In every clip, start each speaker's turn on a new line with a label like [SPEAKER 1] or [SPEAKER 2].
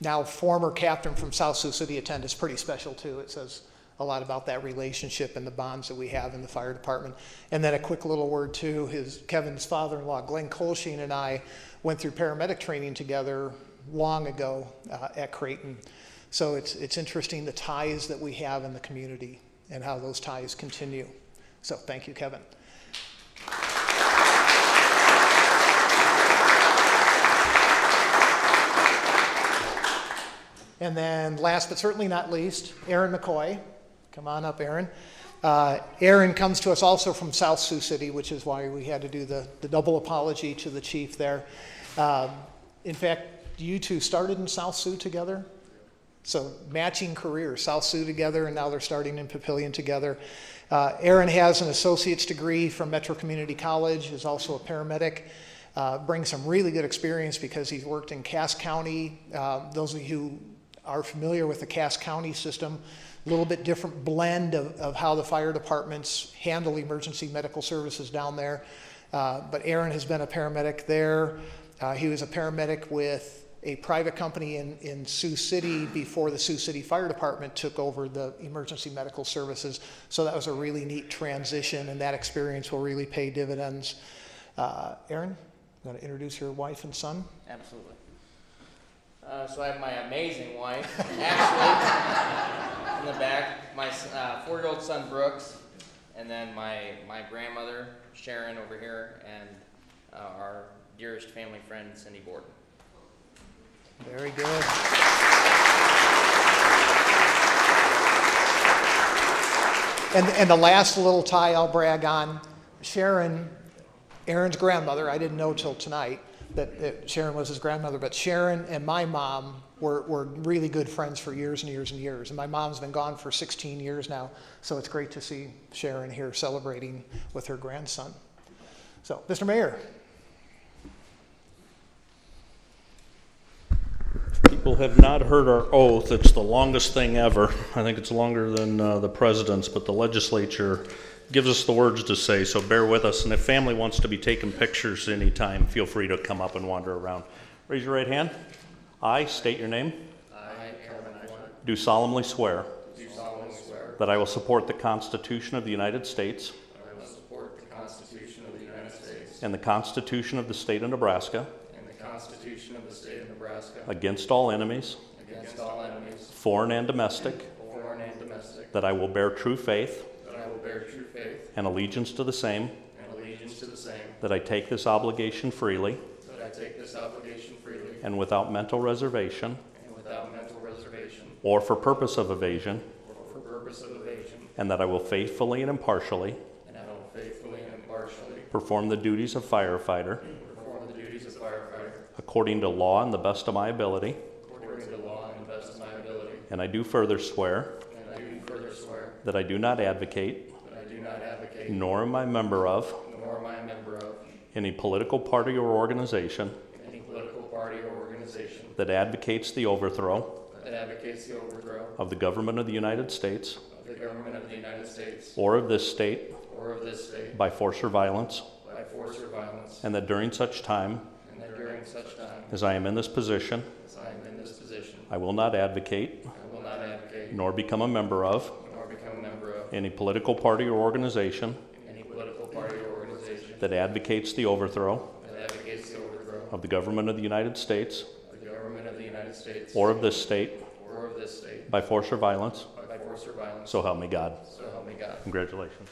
[SPEAKER 1] now former captain from South Sioux City attend is pretty special too. It says a lot about that relationship and the bonds that we have in the fire department. And then a quick little word too, his, Kevin's father-in-law, Glenn Colsheen and I went through paramedic training together long ago uh, at Creighton. So it's, it's interesting the ties that we have in the community and how those ties continue. So thank you, Kevin. And then last but certainly not least, Aaron McCoy. Come on up, Aaron. Uh, Aaron comes to us also from South Sioux City, which is why we had to do the, the double apology to the chief there. Um, in fact, you two started in South Sioux together? So matching careers, South Sioux together, and now they're starting in Papillion together. Uh, Aaron has an associate's degree from Metro Community College, is also a paramedic, uh, brings some really good experience because he's worked in Cass County. Uh, those of you who are familiar with the Cass County system, a little bit different blend of, of how the fire departments handle emergency medical services down there. Uh, but Aaron has been a paramedic there. Uh, he was a paramedic with a private company in, in Sioux City before the Sioux City Fire Department took over the emergency medical services. So that was a really neat transition, and that experience will really pay dividends. Uh, Aaron, you want to introduce your wife and son?
[SPEAKER 2] Absolutely. Uh, so I have my amazing wife, Ashley, in the back, my s- uh, four year old son, Brooks, and then my, my grandmother, Sharon, over here, and uh, our dearest family friend, Cindy Borden.
[SPEAKER 1] Very good. And, and the last little tie I'll brag on, Sharon, Aaron's grandmother, I didn't know till tonight that, that Sharon was his grandmother, but Sharon and my mom were, were really good friends for years and years and years. And my mom's been gone for 16 years now, so it's great to see Sharon here celebrating with her grandson. So, Mr. Mayor,
[SPEAKER 3] People have not heard our oath. It's the longest thing ever. I think it's longer than uh, the president's, but the legislature gives us the words to say, so bear with us. And if family wants to be taking pictures anytime, feel free to come up and wander around. Raise your right hand. I state your name.
[SPEAKER 2] I, Aaron
[SPEAKER 3] Do solemnly swear
[SPEAKER 2] do solemnly swear
[SPEAKER 3] that I will support the Constitution of the United States
[SPEAKER 2] that I will support the Constitution of the United States
[SPEAKER 3] and the Constitution of the State of Nebraska
[SPEAKER 2] and the Constitution of the State of Nebraska
[SPEAKER 3] against all enemies,
[SPEAKER 2] against all enemies,
[SPEAKER 3] foreign and domestic,
[SPEAKER 2] foreign and domestic,
[SPEAKER 3] that I will bear true faith
[SPEAKER 2] that I will bear true faith
[SPEAKER 3] and allegiance to the same,
[SPEAKER 2] and allegiance to the same,
[SPEAKER 3] that I take this obligation freely.
[SPEAKER 2] that I take this obligation freely
[SPEAKER 3] and without mental reservation
[SPEAKER 2] And without mental reservation
[SPEAKER 3] or for purpose of evasion,
[SPEAKER 2] or for purpose of evasion.
[SPEAKER 3] and that I will faithfully and impartially
[SPEAKER 2] And I will faithfully and impartially
[SPEAKER 3] perform the duties of firefighter
[SPEAKER 2] perform the duties of firefighter
[SPEAKER 3] according to law and the best of my ability.
[SPEAKER 2] according to law and the best of my ability.
[SPEAKER 3] And I do further swear
[SPEAKER 2] And I do further swear
[SPEAKER 3] that I do not advocate,
[SPEAKER 2] that I do not advocate,
[SPEAKER 3] nor am I a member of,
[SPEAKER 2] nor am I a member of,
[SPEAKER 3] any political party or organization
[SPEAKER 2] any political party or organization
[SPEAKER 3] that advocates the overthrow
[SPEAKER 2] that advocates the overthrow
[SPEAKER 3] of the government of the United States
[SPEAKER 2] of the government of the United States
[SPEAKER 3] or of this state
[SPEAKER 2] or of this state
[SPEAKER 3] by force or violence,
[SPEAKER 2] by force or violence.
[SPEAKER 3] and that during such time
[SPEAKER 2] And that during such time
[SPEAKER 3] as I am in this position,
[SPEAKER 2] as I am in this position,
[SPEAKER 3] I will not advocate,
[SPEAKER 2] I will not advocate,
[SPEAKER 3] nor become a member of,
[SPEAKER 2] nor become a member of,
[SPEAKER 3] any political party or organization
[SPEAKER 2] any political party or organization
[SPEAKER 3] that advocates the overthrow
[SPEAKER 2] that advocates the overthrow
[SPEAKER 3] of the government of the United States
[SPEAKER 2] of the government of the United States
[SPEAKER 3] or of this state
[SPEAKER 2] or of this state
[SPEAKER 3] by force or violence,
[SPEAKER 2] by force or violence,
[SPEAKER 3] so help me God.
[SPEAKER 2] so help me God.
[SPEAKER 3] Congratulations.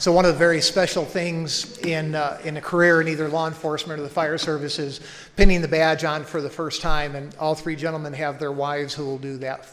[SPEAKER 1] So one of the very special things in, uh, in a career in either law enforcement or the fire service is pinning the badge on for the first time, and all three gentlemen have their wives who will do that